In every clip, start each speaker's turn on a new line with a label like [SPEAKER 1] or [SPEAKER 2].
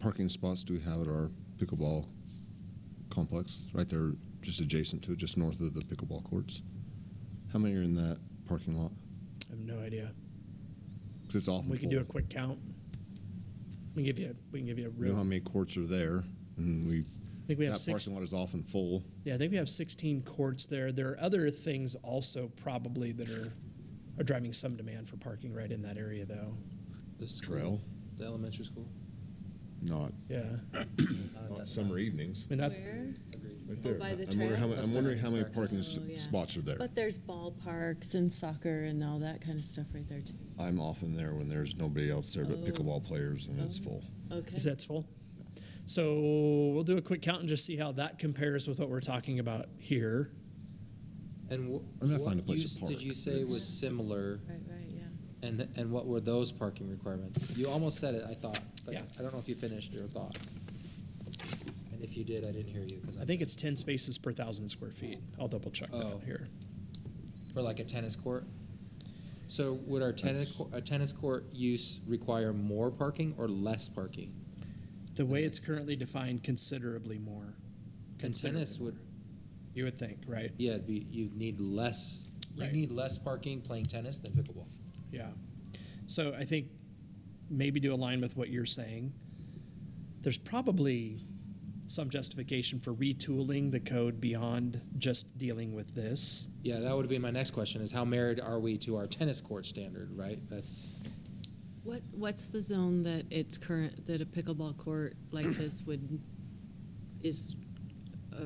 [SPEAKER 1] parking spots do we have at our pickleball complex? Right there, just adjacent to it, just north of the pickleball courts. How many are in that parking lot?
[SPEAKER 2] I have no idea.
[SPEAKER 1] 'Cause it's awful.
[SPEAKER 2] We can do a quick count. We can give you. A, we can give you a
[SPEAKER 1] You know how
[SPEAKER 2] real.
[SPEAKER 1] many courts are there, and we.
[SPEAKER 2] I think we have
[SPEAKER 1] that
[SPEAKER 2] six.
[SPEAKER 1] parking lot is often full.
[SPEAKER 2] Yeah, I think we have 16 courts there. There are other things also probably that are are driving some demand for parking right in that area though.
[SPEAKER 3] The school,
[SPEAKER 1] Trail,
[SPEAKER 3] The elementary school. Uh,
[SPEAKER 1] not
[SPEAKER 2] Yeah, I
[SPEAKER 3] Not
[SPEAKER 1] not
[SPEAKER 3] that-
[SPEAKER 1] summer evenings.
[SPEAKER 2] mean that.
[SPEAKER 4] Where?
[SPEAKER 1] Right there.
[SPEAKER 4] by the
[SPEAKER 1] I'm wondering how
[SPEAKER 4] trail?
[SPEAKER 1] many,
[SPEAKER 3] That's
[SPEAKER 1] I'm
[SPEAKER 3] the
[SPEAKER 1] wondering how many
[SPEAKER 3] practice.
[SPEAKER 1] parking s-
[SPEAKER 4] Oh, yeah.
[SPEAKER 1] spots are there.
[SPEAKER 4] But there's ballparks and soccer and all that kind of stuff right there too.
[SPEAKER 1] I'm often there when there's nobody else there but
[SPEAKER 4] Oh.
[SPEAKER 1] pickleball players, and it's
[SPEAKER 4] Oh.
[SPEAKER 1] full.
[SPEAKER 4] Okay.
[SPEAKER 2] Is that's full. So we'll do a quick count and just see how that compares with what we're talking about here.
[SPEAKER 3] And wh-
[SPEAKER 1] I'm gonna
[SPEAKER 3] what
[SPEAKER 1] find a place to
[SPEAKER 3] use
[SPEAKER 1] park.
[SPEAKER 3] did you say was similar,
[SPEAKER 4] Right, right, yeah.
[SPEAKER 3] and and what were those parking requirements? You almost said it, I thought, but
[SPEAKER 2] Yeah.
[SPEAKER 3] I don't know if you finished your thought. And if you did, I didn't hear you because
[SPEAKER 2] I think it's 10 spaces per thousand square feet. I'll double check
[SPEAKER 3] Oh.
[SPEAKER 2] that here.
[SPEAKER 3] for like a tennis court. So would our tennis
[SPEAKER 1] That's-
[SPEAKER 3] cour- a tennis court use require more parking or less parking?
[SPEAKER 2] The way it's currently defined, considerably more.
[SPEAKER 3] And tennis would
[SPEAKER 2] You would think, right?
[SPEAKER 3] yeah it'd be you need less you
[SPEAKER 2] Right.
[SPEAKER 3] need less parking playing tennis than pickleball.
[SPEAKER 2] Yeah. So I think maybe to align with what you're saying, there's probably some justification for retooling the code beyond just dealing with this.
[SPEAKER 3] Yeah, that would be my next question is how married are we to our tennis court standard, right? That's
[SPEAKER 4] What, what's the zone that it's current, that a pickleball court like this would, is, uh,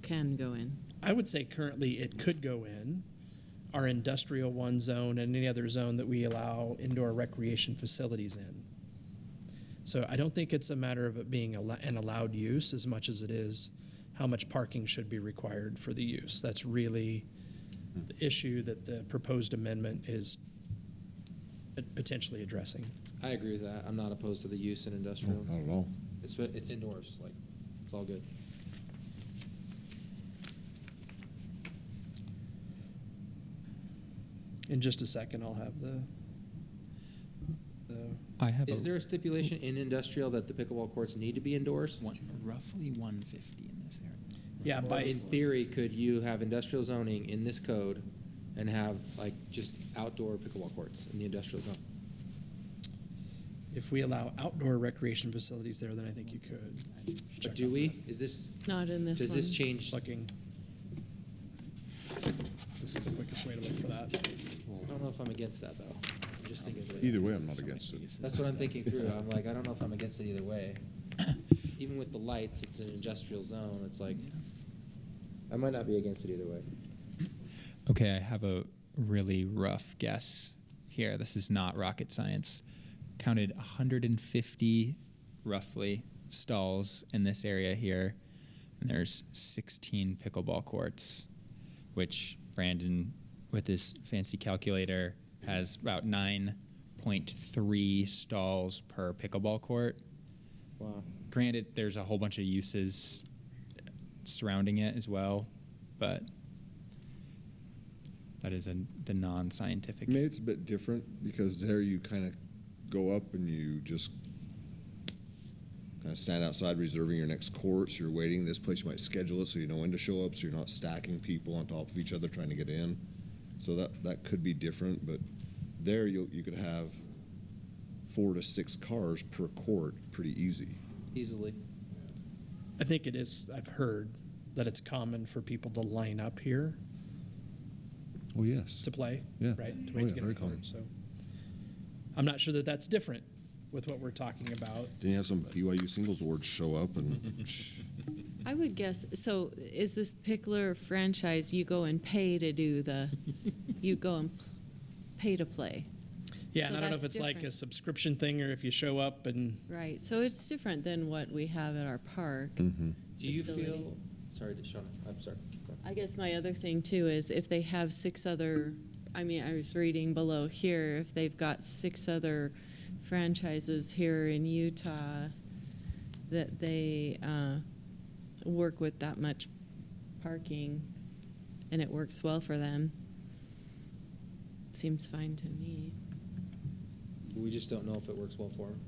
[SPEAKER 4] can go in?
[SPEAKER 2] I would say currently it could go in our industrial one zone and any other zone that we allow indoor recreation facilities in. So I don't think it's a matter of it being al- an allowed use as much as it is how much parking should be required for the use. That's really the issue that the proposed amendment is pot- potentially addressing.
[SPEAKER 3] I agree with that. I'm not opposed to the use in
[SPEAKER 1] No,
[SPEAKER 3] industrial.
[SPEAKER 1] Not at all.
[SPEAKER 3] It's it's indoors, like it's all good.
[SPEAKER 2] In just a second, I'll have the, the
[SPEAKER 5] I have
[SPEAKER 3] Is
[SPEAKER 5] a
[SPEAKER 3] there a stipulation in industrial that the pickleball courts need to be indoors?
[SPEAKER 5] one, roughly 150 in this area.
[SPEAKER 2] yeah,
[SPEAKER 3] Or
[SPEAKER 2] by
[SPEAKER 3] in theory, could you have industrial zoning in this code and have like just outdoor pickleball courts in the industrial zone?
[SPEAKER 2] If we allow outdoor recreation facilities there, then I think you could.
[SPEAKER 3] But
[SPEAKER 2] Check
[SPEAKER 3] do
[SPEAKER 2] on
[SPEAKER 3] we? Is this
[SPEAKER 4] Not in this one?
[SPEAKER 3] does this change?
[SPEAKER 2] Looking. This is the quickest way to look for that.
[SPEAKER 3] I don't know if I'm against that though. I'm just thinking. of it.
[SPEAKER 1] Either way, I'm not against it.
[SPEAKER 3] That's what I'm thinking through. I'm like, I don't know if I'm against it either way. Even with the lights, it's an industrial zone. It's like, I might not be against it either way.
[SPEAKER 5] Okay, I have a really rough guess here. This is not rocket science. Counted 150 roughly stalls in this area here, and there's 16 pickleball courts, which Brandon, with his fancy calculator, has about 9.3 stalls per pickleball court.
[SPEAKER 3] Wow.
[SPEAKER 5] Granted, there's a whole bunch of uses surrounding it as well, but that is a, the non-scientific.
[SPEAKER 1] I mean, it's a bit different because there you kind of go up and you just kind of stand outside reserving your next courts. You're waiting. This place you might schedule it so you know when to show up, so you're not stacking people on top of each other trying to get in. So that that could be different, but there you you could have four to six cars per court pretty easy.
[SPEAKER 3] Easily.
[SPEAKER 2] I think it is, I've heard that it's common for people to line up here
[SPEAKER 1] Oh yes,
[SPEAKER 2] to play,
[SPEAKER 1] yeah,
[SPEAKER 2] right? To
[SPEAKER 1] Oh,
[SPEAKER 2] wait
[SPEAKER 1] yeah,
[SPEAKER 2] to get on
[SPEAKER 1] very
[SPEAKER 2] the court,
[SPEAKER 1] common.
[SPEAKER 2] so. I'm not sure that that's different with what we're talking about.
[SPEAKER 1] Then you have some BYU singles awards show up and.
[SPEAKER 4] I would guess, so is this pickler franchise, you go and pay to do the, you go and p- pay to play?
[SPEAKER 2] Yeah,
[SPEAKER 4] So
[SPEAKER 2] and I don't know if
[SPEAKER 4] that's
[SPEAKER 2] it's like a
[SPEAKER 4] different.
[SPEAKER 2] subscription thing or if you show up and
[SPEAKER 4] Right, so it's different than what we have at our park.
[SPEAKER 3] Do you
[SPEAKER 4] Facility.
[SPEAKER 3] feel? Sorry, Shauna. I'm sorry. Keep going.
[SPEAKER 4] I guess my other thing too is if they have six other, I mean, I was reading below here, if they've got six other franchises here in Utah, that they uh, work with that much parking and it works well for them. Seems fine to me.
[SPEAKER 3] We just don't know if it works well for them.